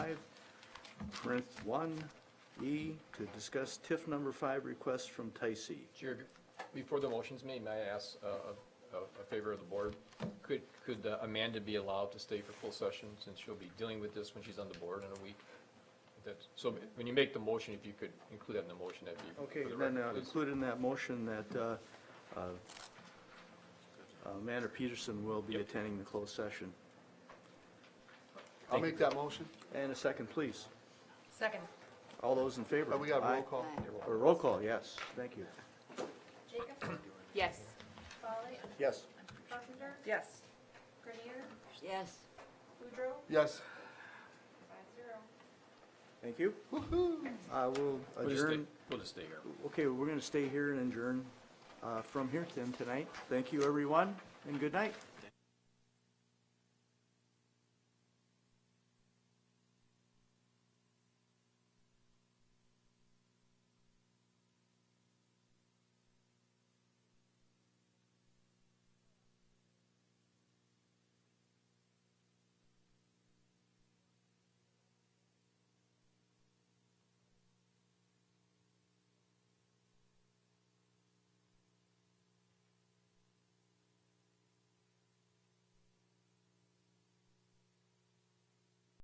Parenth one, E, to discuss TIF number five request from Tysee. Chair, before the motion's made, may I ask uh, a a favor of the board? Could could uh, Amanda be allowed to stay for full session since she'll be dealing with this when she's on the board in a week? That's- So when you make the motion, if you could include that in the motion, that'd be Okay, for the then record, uh, please. include in that motion that uh, uh, Amanda Peterson will be Yep. attending the closed session. I'll make that motion, And a second, please. Second. All those in favor? but Oh, we got a roll Aye. call. Or roll call, yes, thank you. Jacobson, Yes. Folly, Yes. Carpenter, Yes. Grenier, Yes. Boudreaux, Yes. five zero. Thank you. I will We'll just stay- adjourn. We'll just stay here. Okay, we're going to stay here and adjourn uh, from here then tonight. Thank you, everyone, and good night.